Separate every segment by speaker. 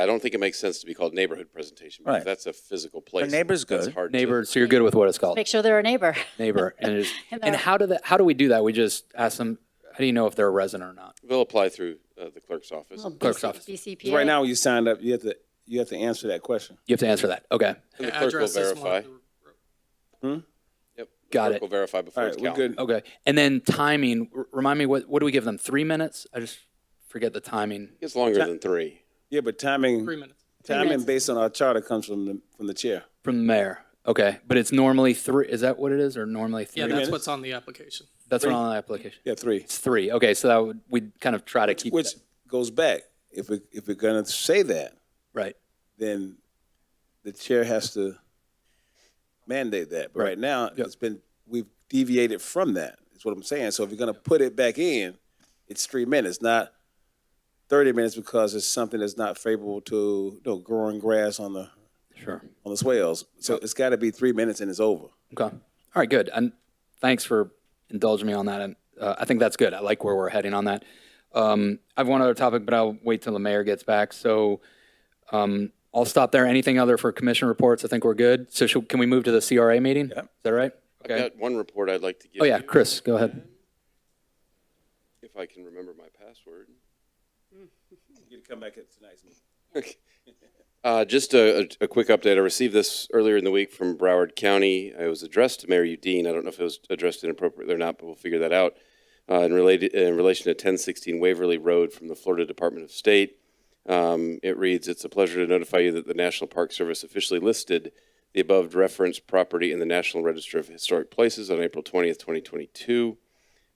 Speaker 1: I don't think it makes sense to be called neighborhood presentation because
Speaker 2: Right.
Speaker 1: that's a physical place.
Speaker 2: neighbor's
Speaker 1: That's
Speaker 2: good.
Speaker 1: hard to-
Speaker 3: Neighbor, so you're good with what it's called,
Speaker 4: Make sure they're a neighbor.
Speaker 3: neighbor. And, it is,
Speaker 4: And uh,
Speaker 3: and
Speaker 4: they're-
Speaker 3: how do that? How do we do that? We just ask them. How do you know if they're a resident or not?
Speaker 1: They'll apply through uh, the clerk's office.
Speaker 4: Well,
Speaker 1: And
Speaker 3: Clerk's
Speaker 4: BC
Speaker 3: office.
Speaker 4: BCPA.
Speaker 5: Right now, you signed up, you have to, you have to answer that question.
Speaker 3: You have to answer that. Okay,
Speaker 1: the clerk will
Speaker 6: Address is one
Speaker 1: verify.
Speaker 6: of the-
Speaker 1: Yep. The
Speaker 3: Got
Speaker 1: clerk
Speaker 3: it.
Speaker 1: Will verify before
Speaker 5: Hmm? All
Speaker 1: it's
Speaker 5: right, we're
Speaker 1: counted.
Speaker 5: good.
Speaker 3: okay. And then timing. R- remind me what what do we give them? Three minutes? I just forget the timing.
Speaker 1: It's longer than three.
Speaker 5: Yeah, but timing,
Speaker 6: Three minutes.
Speaker 5: timing
Speaker 4: minutes.
Speaker 5: based on our charter comes from the, from the chair.
Speaker 3: From the mayor. Okay, but it's normally three. Is that what it is, or normally three?
Speaker 6: Yeah, that's
Speaker 5: minutes.
Speaker 6: what's on the application.
Speaker 3: that's what on the application.
Speaker 5: Yeah, three.
Speaker 3: It's three. Okay, so that would we kind of try to keep
Speaker 5: Which
Speaker 3: that-
Speaker 5: goes back, if we, if we're gonna say that,
Speaker 3: right.
Speaker 5: then the chair has to mandate that. But
Speaker 3: Right.
Speaker 5: right now,
Speaker 3: Yep.
Speaker 5: it's been, we've deviated from that, is what I'm saying. So if you're gonna put it back in, it's three minutes, not thirty minutes because it's something that's not favorable to, you know, growing grass on the,
Speaker 3: Sure.
Speaker 5: on the swales. So it's gotta be three minutes and it's over.
Speaker 3: Okay. All right, good. And thanks for indulging me on that. And uh, I think that's good. I like where we're heading on that. Um, I have one other topic, but I'll wait till the mayor gets back. So um, I'll stop there. Anything other for commission reports? I think we're good. So should, can we move to the CRA meeting? Is that right?
Speaker 1: I've
Speaker 3: Okay.
Speaker 1: got one report I'd like to give
Speaker 3: Oh, yeah,
Speaker 1: you,
Speaker 3: Chris, go ahead.
Speaker 1: If I can remember my password.
Speaker 5: You can come back at tonight's meeting.
Speaker 1: Uh, just a, a, a quick update. I received this earlier in the week from Broward County. It was addressed to Mayor Udine. I don't know if it was addressed inappropriately or not, but we'll figure that out. Uh, in, related, in relation to 1016 Waverly Road from the Florida Department of State, um, it reads It's a pleasure to notify you that the National Park Service officially listed the above referenced property in the National Register of Historic Places on April 20th, 2022.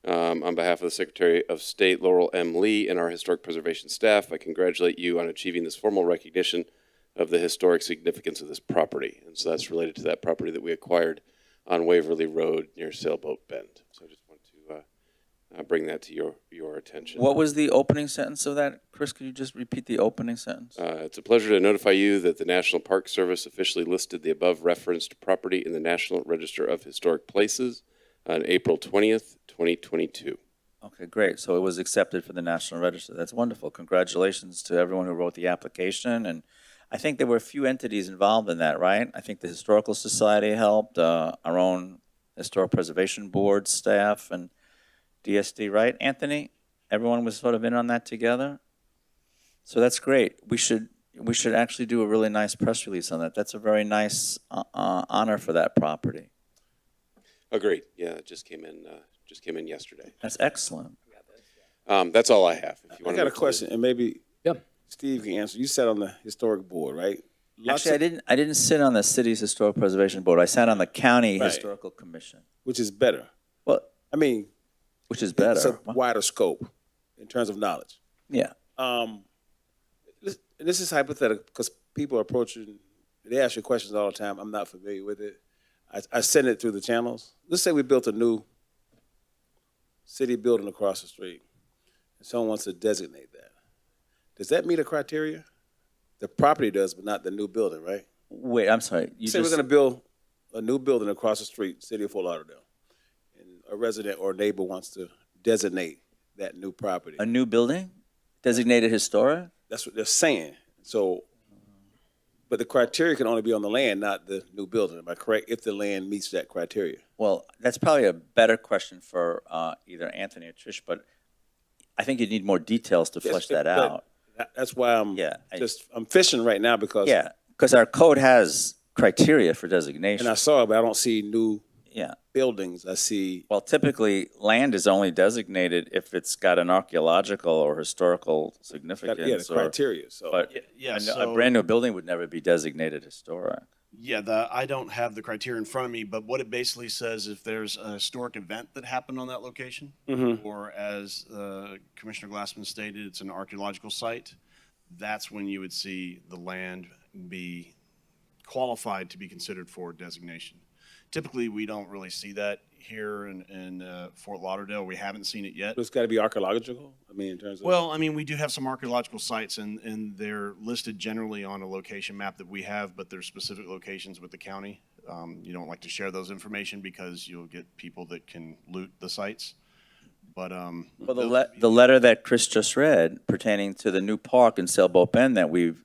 Speaker 1: Um, on behalf of the Secretary of State Laurel M. Lee and our historic preservation staff, I congratulate you on achieving this formal recognition of the historic significance of this property. And so that's related to that property that we acquired on Waverly Road near Sailboat Bend. So I just want to uh, uh, bring that to your, your attention.
Speaker 2: What was the opening sentence of that? Chris, could you just repeat the opening sentence?
Speaker 1: Uh, it's a pleasure to notify you that the National Park Service officially listed the above referenced property in the National Register of Historic Places on April 20th, 2022.
Speaker 2: Okay, great. So it was accepted for the National Register. That's wonderful. Congratulations to everyone who wrote the application. And I think there were a few entities involved in that, right? I think the Historical Society helped, uh, our own Historic Preservation Board staff and DSD, right? Anthony, everyone was sort of in on that together? So that's great. We should, we should actually do a really nice press release on that. That's a very nice, uh, uh, honor for that property.
Speaker 1: Agreed. Oh, Yeah, it just came in, uh, just came in yesterday.
Speaker 2: That's excellent.
Speaker 1: Um, that's all I have. If you
Speaker 5: I
Speaker 1: want
Speaker 5: got a question, and maybe
Speaker 3: Yeah.
Speaker 5: Steve can answer. You sat on the historic board, right? Lots
Speaker 2: Actually, I
Speaker 5: of-
Speaker 2: didn't. I didn't sit on the city's historic preservation board. I sat on the county
Speaker 5: Right.
Speaker 2: historical commission.
Speaker 5: Which is better.
Speaker 2: Well,
Speaker 5: I mean,
Speaker 2: which is better.
Speaker 5: it's a wider scope in terms of knowledge.
Speaker 2: yeah.
Speaker 5: Um, this, this is hypothetical because people are approaching, they ask you questions all the time. I'm not familiar with it. I, I send it through the channels. Let's say we built a new city building across the street, and someone wants to designate that. Does that meet a criteria? The property does, but not the new building, right?
Speaker 2: Wait, I'm sorry. You
Speaker 5: say
Speaker 2: just,
Speaker 5: we're going to build a new building across the street, city of Fort Lauderdale, and a resident or neighbor wants to designate that new property.
Speaker 2: a new building, designated historic.
Speaker 5: That's what they're saying. So, but the criteria can only be on the land, not the new building. Am I correct? If the land meets that criteria,
Speaker 2: Well, that's probably a better question for uh, either Anthony or Trish, but I think you need more details to flesh that
Speaker 5: but
Speaker 2: out.
Speaker 5: that- That's why I'm
Speaker 2: Yeah, I-
Speaker 5: just I'm fishing right now because
Speaker 2: Yeah, because our code has criteria for designation.
Speaker 5: And I saw it, but I don't see new
Speaker 2: yeah.
Speaker 5: buildings. I see
Speaker 2: Well, typically, land is only designated if it's got an archaeological or historical significance.
Speaker 5: yeah the
Speaker 2: or-
Speaker 5: criteria. So
Speaker 2: But
Speaker 7: yeah,
Speaker 2: a, n-
Speaker 7: so-
Speaker 2: a brand new building would never be designated historic.
Speaker 7: Yeah, the, I don't have the criteria in front of me, but what it basically says, if there's a historic event that happened on that location, or as uh, Commissioner Glassman stated, it's an archaeological site, that's when you would see the land be qualified to be considered for designation. Typically, we don't really see that here in, in uh, Fort Lauderdale. We haven't seen it yet.
Speaker 5: it's got to be archaeological. I mean, in terms of
Speaker 7: Well, I mean, we do have some archaeological sites, and, and they're listed generally on a location map that we have, but there's specific locations with the county. Um, you don't like to share those information because you'll get people that can loot the sites. But, um,
Speaker 2: Well, the, le- the letter that Chris just read pertaining to the new park in Sailboat Bend that we've